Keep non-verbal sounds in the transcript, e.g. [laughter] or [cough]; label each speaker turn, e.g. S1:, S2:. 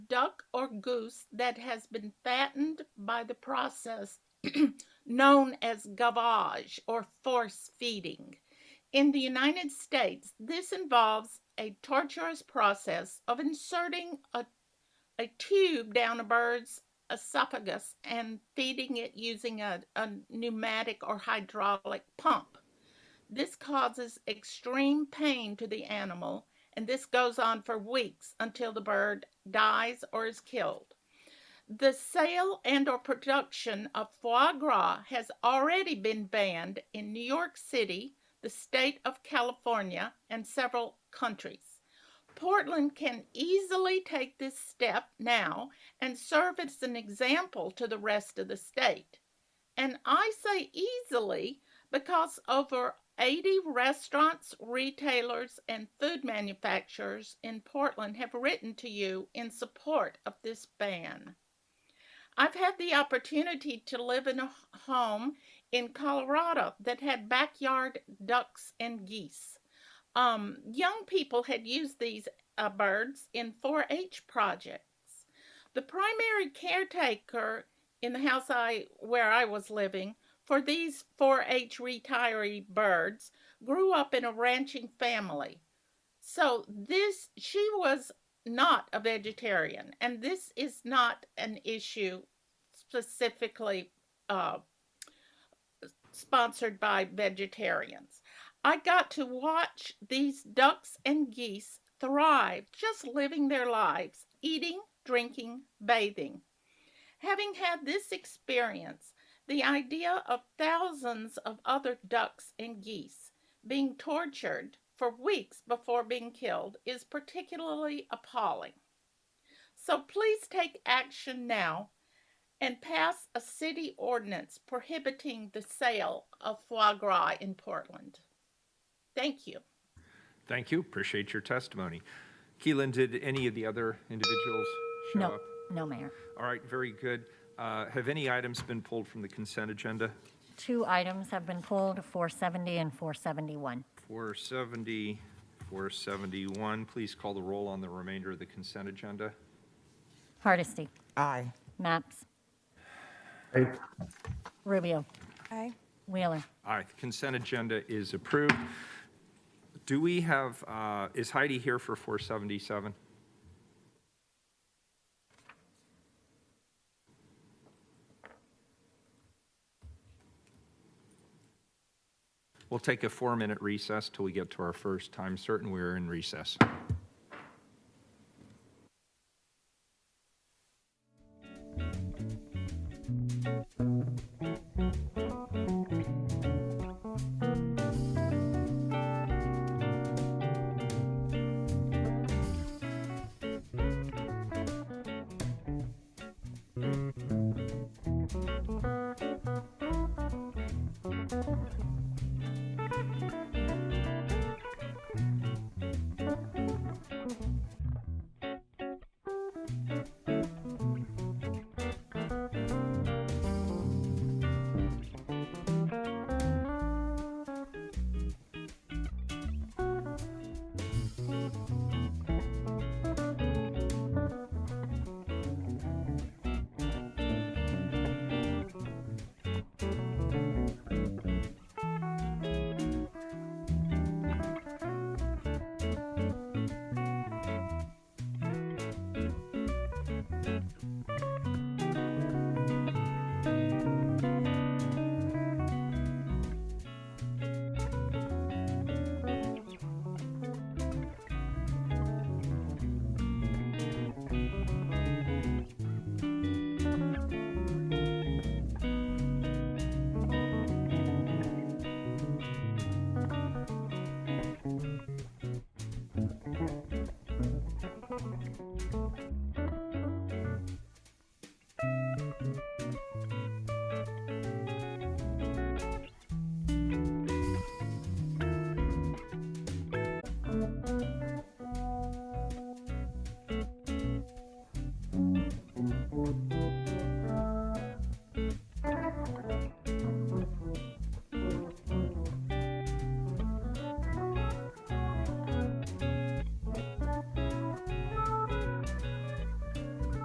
S1: duck or goose that has been fattened by the process [clears throat] known as gavage or force feeding. In the United States, this involves a torturous process of inserting a, a tube down a bird's esophagus and feeding it using a, a pneumatic or hydraulic pump. This causes extreme pain to the animal, and this goes on for weeks until the bird dies or is killed. The sale and or production of foie gras has already been banned in New York City, the state of California, and several countries. Portland can easily take this step now and serve as an example to the rest of the state. And I say easily because over 80 restaurants, retailers, and food manufacturers in Portland have written to you in support of this ban. I've had the opportunity to live in a home in Colorado that had backyard ducks and geese. Um, young people had used these uh, birds in 4 H projects. The primary caretaker in the house I, where I was living for these 4 H retiree birds grew up in a ranching family. So this she was not a vegetarian, and this is not an issue specifically uh, sponsored by vegetarians. I got to watch these ducks and geese thrive, just living their lives, eating, drinking, bathing. Having had this experience, the idea of thousands of other ducks and geese being tortured for weeks before being killed is particularly appalling. So please take action now and pass a city ordinance prohibiting the sale of foie gras in Portland. Thank you.
S2: Thank you. Appreciate your testimony. Keelan, did any of the other individuals show
S3: No,
S2: up?
S3: no, Mayor.
S2: All right, very good. Uh, have any items been pulled from the consent agenda?
S3: Two items have been pulled, 470 and 471.
S2: 470, 471. Please call the roll on the remainder of the consent agenda.
S3: Hardesty,
S4: Aye.
S3: Maps,
S5: Aye.
S3: Rubio,
S6: Aye.
S3: Wheeler.
S2: All right, the consent agenda is approved. Do we have, uh, is Heidi here for 477? We'll take a four-minute recess till we get to our first time certain. We're in recess.